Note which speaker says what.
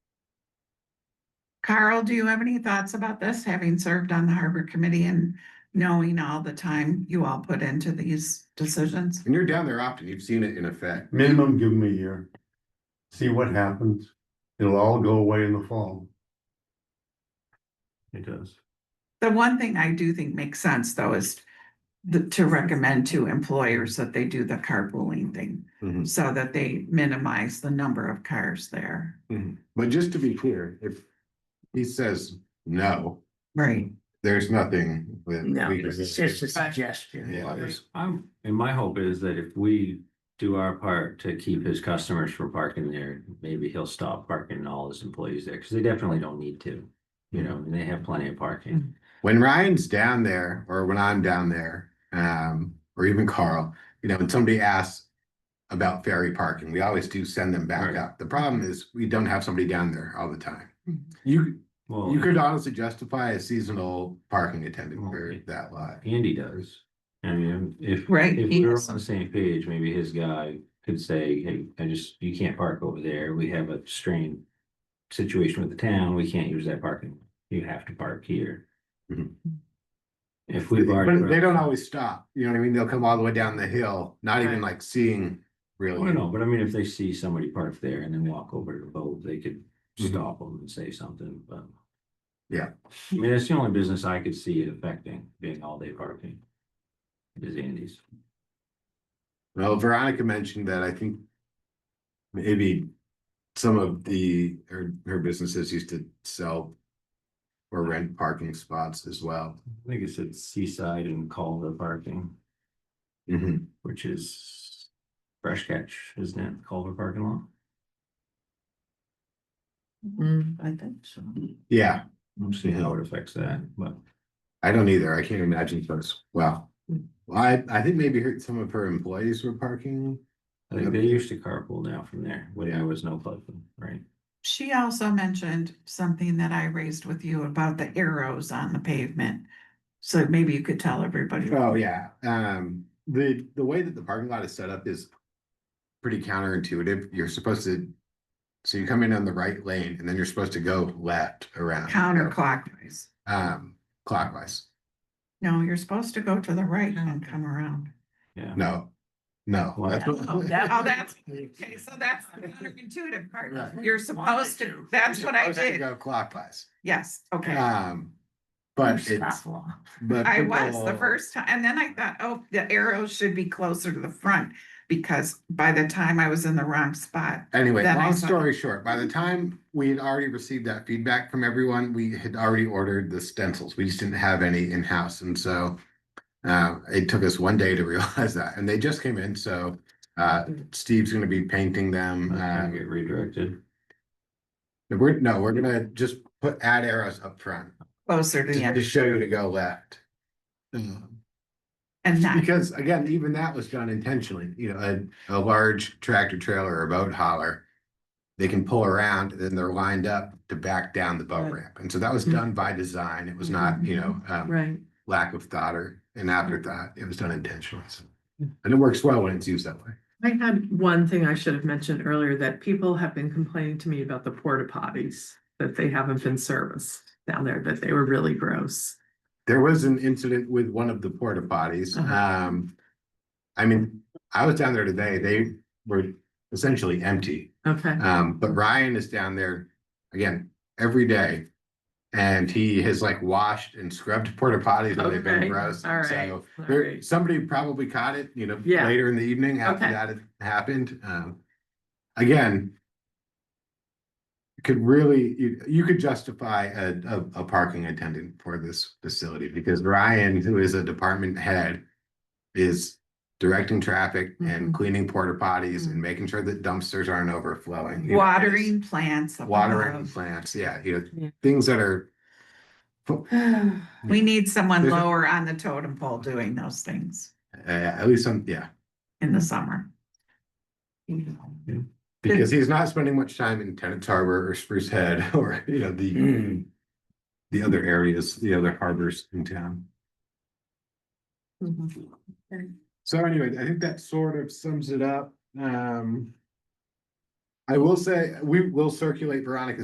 Speaker 1: Carl, do you have any thoughts about this, having served on the harbor committee and knowing all the time you all put into these decisions?
Speaker 2: And you're down there often, you've seen it in effect.
Speaker 3: Minimum, give them a year. See what happens. It'll all go away in the fall. It does.
Speaker 1: The one thing I do think makes sense though is the, to recommend to employers that they do the carpooling thing.
Speaker 2: Mhm.
Speaker 1: So that they minimize the number of cars there.
Speaker 2: But just to be clear, if he says no,
Speaker 1: Right.
Speaker 2: there's nothing that.
Speaker 4: No,
Speaker 2: we can-
Speaker 4: it's just a suggestion.
Speaker 2: Yeah.
Speaker 4: was.
Speaker 5: I'm, and my hope is that if we do our part to keep his customers from parking there, maybe he'll stop parking all his employees there, because they definitely don't need to. You know, and they have plenty of parking.
Speaker 2: When Ryan's down there, or when I'm down there, um, or even Carl, you know, when somebody asks about ferry parking, we always do send them back
Speaker 5: Right.
Speaker 2: up. The problem is, we don't have somebody down there all the time.
Speaker 4: Mm-hmm.
Speaker 2: You,
Speaker 5: Well,
Speaker 2: you could honestly justify a seasonal parking attendant for
Speaker 5: Okay.
Speaker 2: that lot.
Speaker 5: Andy does. I mean, if,
Speaker 1: Right.
Speaker 5: if
Speaker 1: he
Speaker 5: we're
Speaker 1: is-
Speaker 5: on the same page, maybe his guy could say, hey, I just, you can't park over there. We have a strained situation with the town. We can't use that parking. You have to park here.
Speaker 2: Mhm.
Speaker 5: If we've already.
Speaker 2: But they don't always stop, you know what I mean? They'll come all the way down the hill, not even like seeing
Speaker 5: I don't
Speaker 2: really.
Speaker 5: know, but I mean, if they see somebody parked there and then walk over to the boat, they could
Speaker 2: Mhm.
Speaker 5: stop them and say something, but.
Speaker 2: Yeah.
Speaker 5: I mean, it's the only business I could see it affecting, being all day parking. Is Andy's.
Speaker 2: Well, Veronica mentioned that I think maybe some of the, her, her businesses used to sell or rent parking spots as well.
Speaker 5: I think it said seaside and Calder parking,
Speaker 2: Mhm.
Speaker 5: which is fresh catch, isn't it, Calder parking lot?
Speaker 6: Mm-hmm.
Speaker 4: Mm, I think so.
Speaker 2: Yeah,
Speaker 5: I'm seeing how it affects that, but
Speaker 2: I don't either. I can't imagine those. Wow. Well, I, I think maybe her, some of her employees were parking.
Speaker 5: I think they used to carpool now from there, when
Speaker 2: Yeah.
Speaker 5: there was no flooding, right?
Speaker 1: She also mentioned something that I raised with you about the arrows on the pavement. So maybe you could tell everybody.
Speaker 2: Oh, yeah, um, the, the way that the parking lot is set up is pretty counterintuitive, you're supposed to. So you come in on the right lane and then you're supposed to go left around.
Speaker 1: Counterclockwise.
Speaker 2: Um, clockwise,
Speaker 1: No, you're supposed to go to the right and come around.
Speaker 5: Yeah.
Speaker 2: no, no.
Speaker 5: Well,
Speaker 2: that's what-
Speaker 1: Oh, that- oh, that's- Okay, so that's the counterintuitive part. You're supposed to, that's what I
Speaker 2: Supposed to
Speaker 1: did.
Speaker 2: Go clockwise,
Speaker 1: Yes, okay.
Speaker 2: um, but it's, but.
Speaker 1: I was the
Speaker 2: people-
Speaker 1: first time, and then I thought, oh, the arrows should be closer to the front because by the time I was in the wrong spot.
Speaker 2: Anyway,
Speaker 1: Then I
Speaker 2: long
Speaker 1: saw-
Speaker 2: story short, by the time we had already received that feedback from everyone, we had already ordered the stencils. We just didn't have any in-house. And so uh, it took us one day to realize that. And they just came in, so uh, Steve's gonna be painting them.
Speaker 5: I
Speaker 2: uh,
Speaker 5: Get redirected.
Speaker 2: We're, no, we're gonna just put add arrows up front
Speaker 1: Closer to the
Speaker 2: to to
Speaker 1: end
Speaker 2: show you to go left. Um,
Speaker 1: and not,
Speaker 2: Because again, even that was done intentionally, you know, a, a large tractor trailer or a boat hauler. They can pull around and then they're lined up to back down the boat
Speaker 4: Right. Mm-hmm.
Speaker 2: ramp. And so that was done by design. It was not, you know, um,
Speaker 4: Right.
Speaker 2: lack of thought or an afterthought. It was done intentionally. So-
Speaker 4: Mm.
Speaker 2: And it works well when it's used that way.
Speaker 6: I had one thing I should have mentioned earlier that people have been complaining to me about the porta potties, that they haven't been serviced down there, that they were really gross.
Speaker 2: There was an incident with one of the porta potties.
Speaker 6: Uh-huh.
Speaker 2: Um, I mean, I was down there today. They were essentially empty.
Speaker 6: Okay,
Speaker 2: Um, but Ryan is down there again every day. And he has like washed and scrubbed porta potties when they've been
Speaker 6: Okay,
Speaker 2: gross.
Speaker 6: all right,
Speaker 2: So
Speaker 6: all
Speaker 2: there-
Speaker 6: right.
Speaker 2: somebody probably caught it, you know,
Speaker 6: Yeah.
Speaker 2: later in the evening after
Speaker 6: Okay.
Speaker 2: that had happened. Um, again. Could really, you, you could justify a, a, a parking attendant for this facility because Ryan, who is a department head. Is directing traffic
Speaker 6: Mm-hmm.
Speaker 2: and cleaning porta potties and making sure that dumpsters aren't overflowing. you know, it's-
Speaker 1: watering plants.
Speaker 2: watering
Speaker 1: above.
Speaker 2: plants, yeah, you
Speaker 6: Yeah.
Speaker 2: know, things that are.
Speaker 1: We need someone
Speaker 2: There's a-
Speaker 1: lower on the totem pole doing those things
Speaker 2: Uh, at least some, yeah,
Speaker 1: in the summer. Mm-hmm.
Speaker 2: because he's not spending much time in Tennant Harbor or Spruce Head or, you know, the. The other areas, the other harbors in town. So anyway, I think that sort of sums it up, um. I will say, we will circulate Veronica's